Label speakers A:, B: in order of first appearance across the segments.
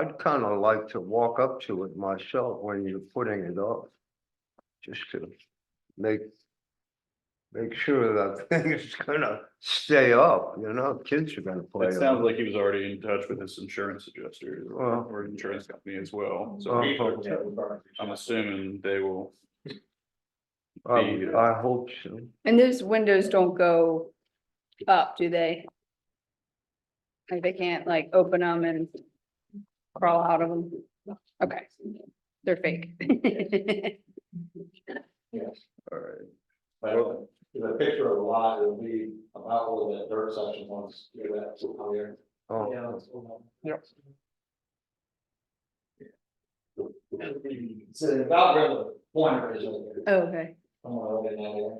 A: I'd kind of like to walk up to it myself when you're putting it up. Just to make. Make sure that thing is gonna stay up, you know, kids are gonna play.
B: It
A: on
B: sounds like he was already in touch with his insurance adjuster
A: Well.
B: or insurance company as well, so
A: Oh,
B: I'm assuming they will.
A: Oh, I I hope so.
C: And those windows don't go up, do they? Like they can't like open them and crawl out of them? Okay, they're fake.
A: All right.
D: But if I picture a lot, it'll be about where that dirt section wants to do that to come here.
A: Oh,
D: Yep. So about where the pointer is over there,
C: Okay,
D: somewhere over in that area.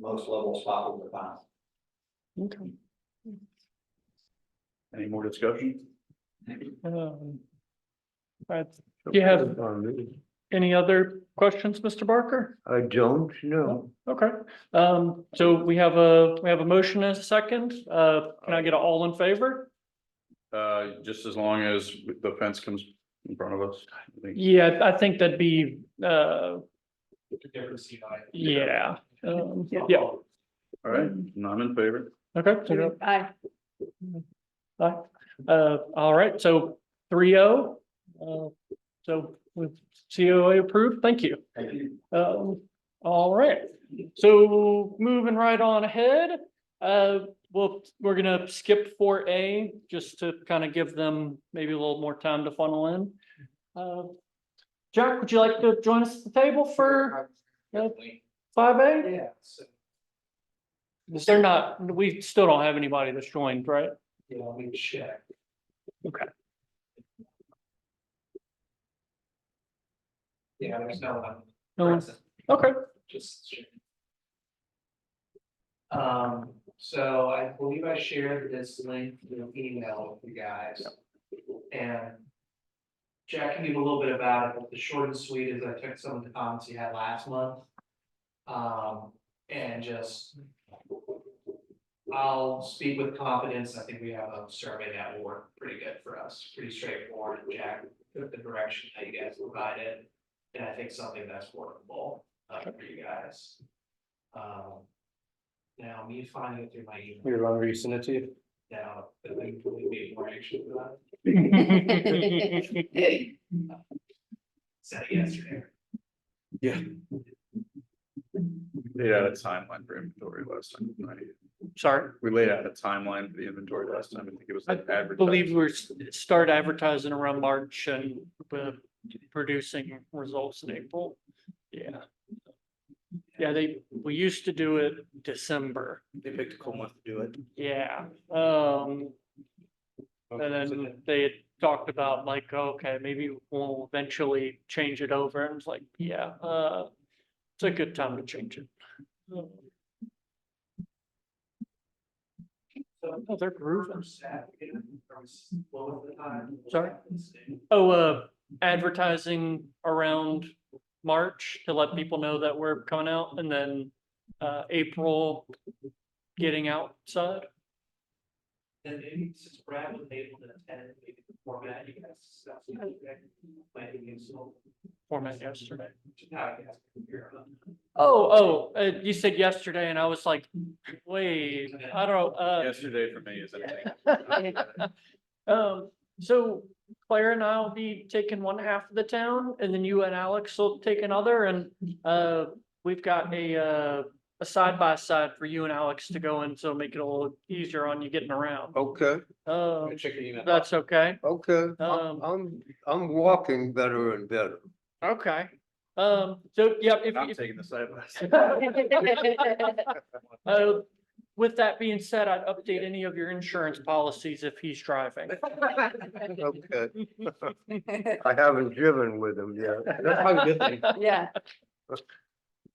D: Most level spot we could find.
B: Any more discussion?
E: Um, right. Do you have-
A: on me.
E: any other questions, Mr. Barker?
A: I don't know.
E: Okay, um, so we have a, we have a motion and a second. Uh, can I get an all in favor?
B: Uh, just as long as the fence comes in front of us. I think.
E: Yeah, I think that'd be, uh,
D: Different CI.
E: yeah, um, yeah,
D: Oh,
B: All right, none in favor?
E: okay. so you're-
C: I,
E: Aye. Uh, all right, so three oh, uh, so with COA approved, thank you.
D: Thank you.
E: Um, all right, so moving right on ahead, uh, well, we're gonna skip four A just to kind of give them maybe a little more time to funnel in. Uh, Jack, would you like to join us at the table for five A?
D: Yeah, so,
E: They're not, we still don't have anybody that's joined, right?
D: yeah, let me check.
E: Okay.
D: Yeah, there's no one.
E: No one?
D: present.
E: Okay,
D: just. sharing. Um, so I believe I shared this link, in an email with you guys. And. Jack can give a little bit about it, but the short and sweet is I took some of the comments you had last month. Um, and just. I'll speak with confidence, I think we have a survey that will work pretty good for us, pretty straightforward, Jack took the direction that you guys provided. And I think something that's workable uh, for you guys. Um. Now, me finding it through my email. You're on resend it to you? Now, I think we need more action for that, said it yesterday.
B: Laid out a timeline for inventory last time. right?
E: sorry.
B: We laid out a timeline for the inventory last time. I think it was.
E: I
B: like advertised.
E: believe we're s- start advertising around March and uh, producing results in April. Yeah. Yeah, they, we used to do it December.
F: They picked a cool month to do it.
E: Yeah, um, and then uh, they had talked about like, okay, maybe we'll eventually change it over. And it's like, yeah, uh, it's a good time to change it.
D: So,
E: Oh, they're
D: from
E: grooving.
D: Saturday, from s- what was the time?
E: Sorry? Oh, uh, advertising around March to let people know that we're coming out and then, uh, April getting outside.
D: And maybe since Brad was able to attend, maybe the format you guys discussed. Planning and so.
E: Format yesterday.
D: Now, I guess, here, uh,
E: Oh, oh, uh, you said yesterday and I was like, wait, I don't, uh,
B: Yesterday for me is. I think.
E: um, so Claire and I will be taking one half of the town and then you and Alex will take another and, uh, we've got a, uh, a side by side for you and Alex to go in, so make it a little easier on you getting around.
A: Okay,
D: Oh,
E: Um,
F: Check your email.
E: that's okay.
A: okay.
E: Um,
A: I'm- I'm, I'm walking better and better.
E: Okay. Um, so, yeah, if,
B: I'm
E: if-
B: taking the side by side.
E: uh, with that being said, I'd update any of your insurance policies if he's driving.
A: Okay, I haven't driven with him yet.
F: That's probably a good thing.
C: yeah.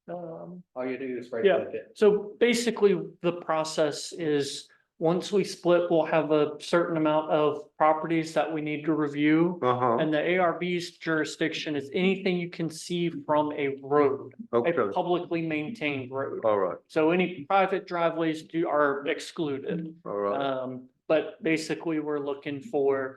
E: Um,
F: All you do is right
E: Yeah.
F: click it.
E: So basically, the process is, once we split, we'll have a certain amount of properties that we need to review.
A: Uh-huh,
E: And the ARB's jurisdiction is anything you can see from a road, a
A: okay,
E: publicly maintained road.
A: all right,
E: So any private driveways do are excluded.
A: all right.
E: Um, but But basically, we're looking for